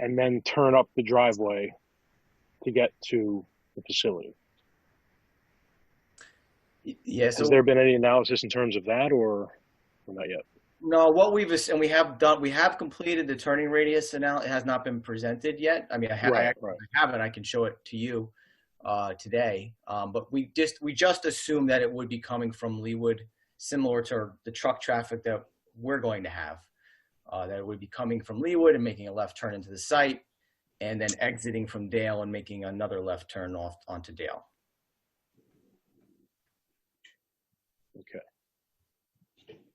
and then turn up the driveway to get to the facility. Y- Yeah, so Has there been any analysis in terms of that or, or not yet? no, what we've ass- and we have done, we have completed the turning radius analysis. It has not been presented yet. I mean, I, ha- I Right, actually right. have it. I can show it to you uh, today. Um, but we just we just assumed that it would be coming from Leewood, similar to the truck traffic that we're going to have. Uh, that it would be coming from Leewood and making a left turn into the site, and then exiting from Dale and making another left turn off onto Dale.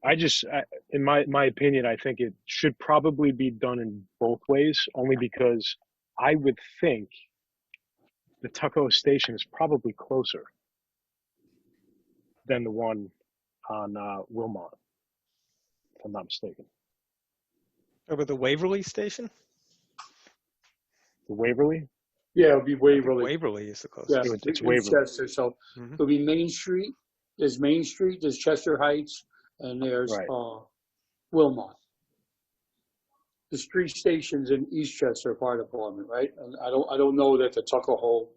I just, I, in my, my opinion, I think it should probably be done in both ways, only because I would think the Tucko station is probably closer than the one on uh, Wilmot, if I'm not mistaken. Over the Waverly Station? The Waverly? Yeah, it'll be Waverly. Waverly is the closest. Yeah, It's- it's in Waverly. Chester, so Mhm. it'll be Main Street, there's Main Street, there's Chester Heights, and there's, Right. uh, Wilmot. There's three stations in East Chester Fire Department, right? And I don't, I don't know that the Tuckahoe,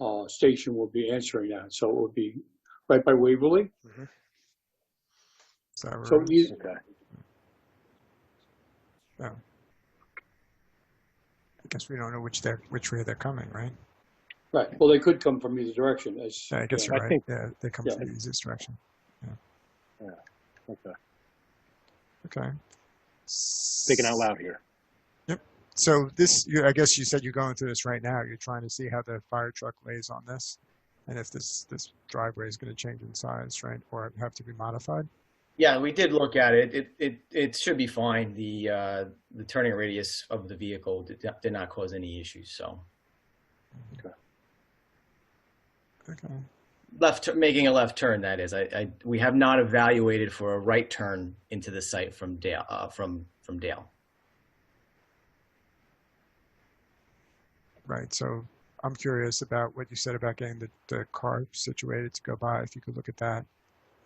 uh, station will be answering that, so it would be right by Waverly. Sarah So e-, Road. you, Okay. I guess we don't know which they're, which way they're coming, right? right, well, they could come from either direction, as. Yeah, I guess yeah. you're I right. think- Yeah, they come yeah. from the easiest direction. Okay. Okay. Thinking out loud here. So this, you, I guess you said you're going through this right now. You're trying to see how the fire truck lays on this, and if this this driveway is going to change in size, right, or have to be modified. Yeah, we did look at it. It it it should be fine. The uh, the turning radius of the vehicle did, not- did not cause any issues. So Okay. left tu- making a left turn that is. I, I we have not evaluated for a right turn into the site from Dale uh, from from Dale. Right. So I'm curious about what you said about getting the, the car situated to go by. If you could look at that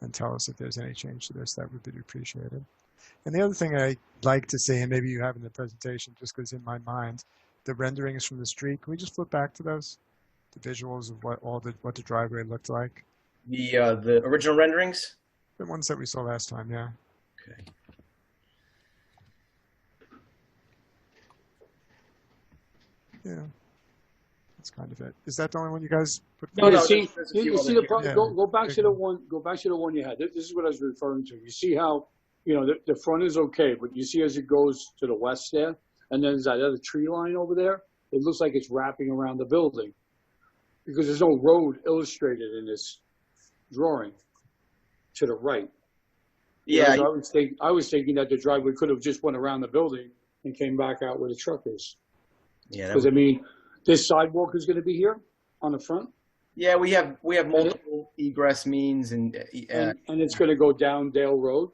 and tell us if there's any change to this, that would be appreciated. And the other thing I'd like to see, and maybe you have in the presentation, just because in my mind, the renderings from the street, can we just flip back to those? The visuals of what all the what the driveway looked like. The uh, the original renderings. The ones that we saw last time, yeah. Okay. Yeah. That's kind of it. Is that the only one you guys put? No, No, you no, see, there's- there's a you few you other see the, here. pro- Yeah. go, go back to Okay. the one, go back to the one you had. This this is what I was referring to. You see how, you know, the, the front is okay, but you see as it goes to the west there, and then there's that other tree line over there, it looks like it's wrapping around the building. Because there's no road illustrated in this drawing to the right. Yeah, Whereas I was think I was thinking that the driveway could have just went around the building and came back out where the truck is. yeah, that Because I mean, this sidewalk is gonna be here on the front. yeah. We have we have multiple egress means and uh, e- uh, And, and it's gonna go down Dale Road,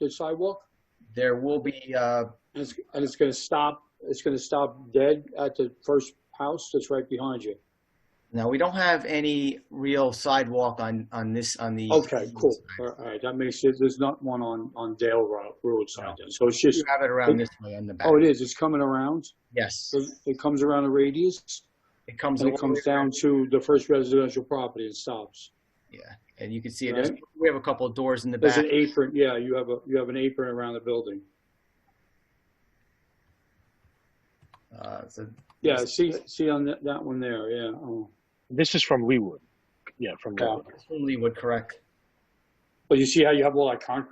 the sidewalk, there will be uh, and it's, and it's gonna stop, it's gonna stop dead at the first house that's right behind you. no. We don't have any real sidewalk on on this on the Okay, cool. All right, that makes it, there's not one on, on Dale Road, roadside then, so it's just, You have it around this way on the back. oh, it is, it's coming around. Yes, It it comes around a radius, it comes. and all it the comes way down around. to the first residential property and stops. Yeah, and you can see it. There's- Right. We have a couple of doors in the There's back. an apron, yeah, you have a, you have an apron around the building. Uh, so Yeah, see, see on that, that one there, yeah, oh. This is from Leewood. Yeah, from Okay. Leewood. only would correct. But you see how you have all that concrete